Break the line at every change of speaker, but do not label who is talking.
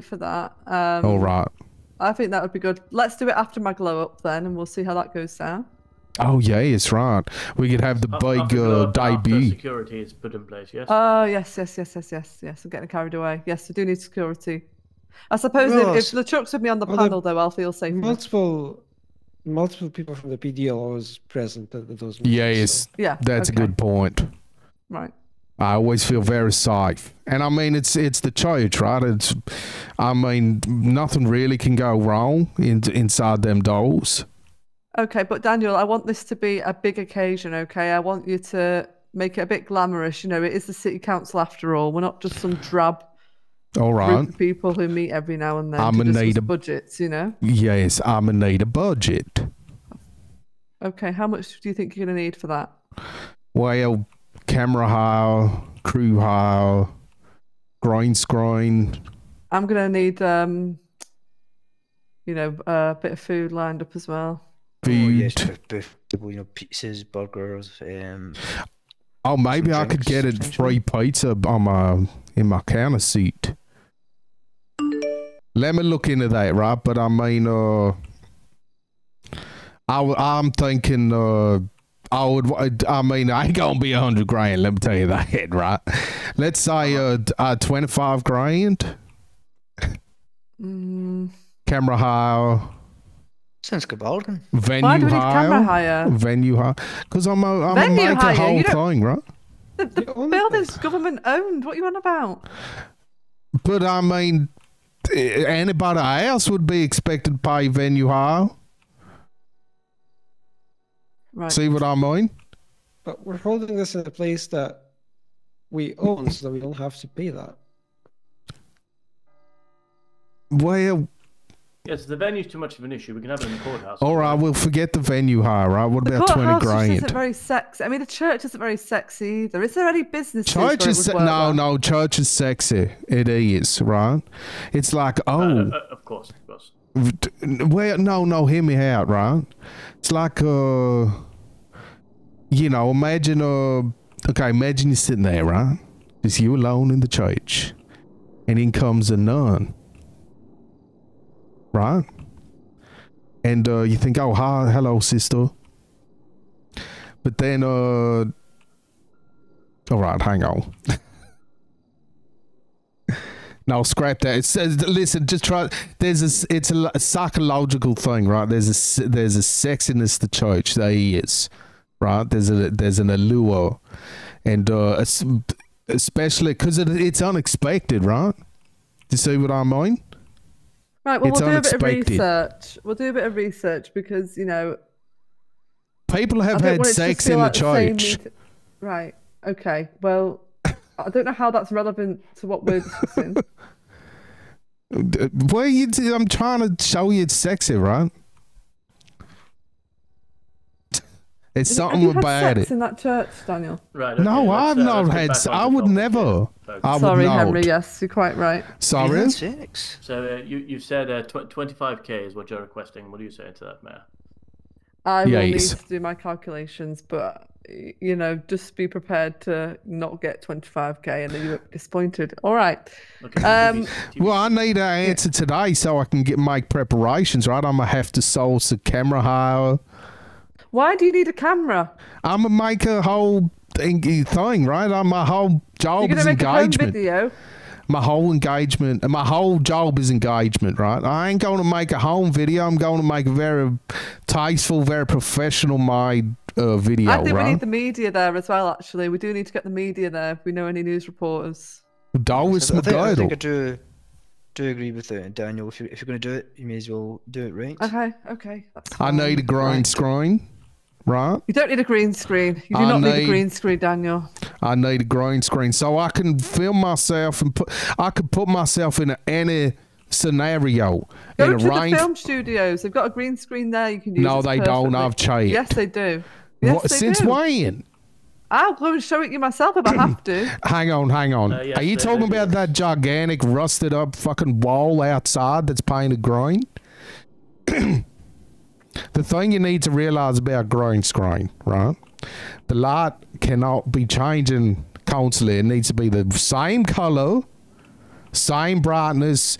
for that. Um,
All right. Oh.
I think that would be good. Let's do it after my glow up then, and we'll see how that goes down.
Oh yeah, it's right. We could have the
Oh,
Af-
big
after
uh,
the- after
debut.
Security is put in place. Yes.
Oh yes, yes, yes, yes, yes, yes. I'm getting carried away. Yes, I do need security. I suppose
Well,
if, if
s-
the truck's with me on the
well, the-
panel, though, I'll feel safe.
Multiple, multiple people from the PD are always present at those meetings.
Yeah,
so-
yes,
Yeah,
that's
okay.
a good point.
Right.
I always feel very safe, and I mean it's it's the church, right? It's, I mean nothing really can go wrong in, inside them doors.
Okay, but Daniel, I want this to be a big occasion. Okay, I want you to make it a bit glamorous. You know, it is the city council after all. We're not just some drab
All
group
right.
of people who meet every now and then
I'm
to
in
discuss
need of-
budgets. You know.
Yes, I'm gonna need a budget.
Okay, how much do you think you're going to need for that?
Well, camera hire, crew hire, green screen.
I'm gonna need um you know a bit of food lined up as well.
Oh, yes,
Food.
bu- bu- bu- you know, pizzas, burgers. Um,
Oh, maybe
Some
I could
drinks,
get a free
potentially.
pizza on my in my counter seat. Let me look into that, right? But I mean, uh, I am thinking, uh, I would. wa- I mean, I ain't gonna be a hundred grand. Let me tell you that, right? Let's say uh, d- uh twenty five grand.
Mm.
Camera hire,
sounds good bargain.
venue
Why do we need
hire,
camera hire?
venue hire. Because I'm a, I'm
Venue
a make
hire,
a whole
you don't-
thing, right?
The, the
Yeah, all of
building's
this.
government owned. What are you on about?
But I mean, eh, anybody else would be expected to pay venue hire.
Right.
See what I mean?
But we're holding this in a place that we own, so that we don't have to pay that.
Well,
yes. The venue's too much of an issue. We can have it in the courthouse.
all right, we'll forget the venue hire, right? What
the
about twenty
courthouse just isn't
grand?
very sexy. I mean, the church isn't very sexy either. Is there any business?
Church is se-
no,
no, no. Church is sexy. It is right. It's like
Uh,
oh,
uh, of course, of course.
v- t- well, no, no. Hear me out, right? It's like uh, you know, imagine uh, okay, imagine you're sitting there, right? Just you alone in the church, and in comes a nun, right? And uh, you think, oh, hi, hello, sister. But then, uh, all right, hang on. no, scrap that. It says, listen, just try. There's a, s- it's a, l- a psychological thing, right? There's a, s- there's a sexiness to church. There is, right? There's a, there's an allure, and uh, es- especially because it, it's unexpected, right? Do you see what I mean?
Right. Well,
It's
we'll do a bit of
unexpected.
research. We'll do a bit of research because you know
People have
I don't
had
want it to
sex
feel
in the
like same
church.
meet- Right. Okay. Well, I don't know how that's relevant to what we're discussing.
D- Well, you, d- I'm trying to show you it's sexy, right? It's
Have
something
you had
about
sex
it.
in that church, Daniel?
Right. Okay,
No, I've
let's, uh,
not
let's get
had.
back
s-
on
I
the
would
topic
never.
here, folks.
I would
Sorry,
not.
Henry. Yes, you're quite right.
Sorry.
That's six.
So uh, you you said uh, tw- 25k is what you're requesting. What do you say to that, Mayor?
I will need
Yes.
to do my calculations, but y- you know, just be prepared to not get 25k and then you're disappointed. All right.
Okay.
Um,
TBC.
Well, I need an answer today so I can get make preparations. Right, I'm gonna have to source a camera hire.
Why do you need a camera?
I'm gonna make a whole thing, thing right? I'm my whole
You're
job
going
is
to make a home
Oh, engagement.
video.
my whole engagement uh, my whole job is engagement right i ain't going to make a home video i'm going to make a very tasteful very professional my uh, video
I think we
right
need the media there as well, actually. We do need to get the media there if we know any news reporters.
that was
I
a
think, I
title
think I do, do agree with it, Daniel. If you if you're gonna do it, you may as well do it right.
Okay, okay. That's
i
fine.
need a green
Right.
screen right
You don't need a green screen. You do
I
not need a
need-
green screen, Daniel.
i need a green screen so i can film myself and put i could put myself in any scenario
Go
in
to
a
the
range
film studios. They've got a green screen there you can use.
no
It's
they don't
perfectly-
i've checked
Yes, they do. Yes,
What-
they
since
do.
when
I'll go and show it you myself if I have to.
Hang on, hang on.
Uh, yes,
Are you
they-
talking
they do
about
this.
that gigantic rusted up fucking wall outside that's painted green? the thing you need to realize about green screen, right? The light cannot be changing constantly. It needs to be the same color, same brightness,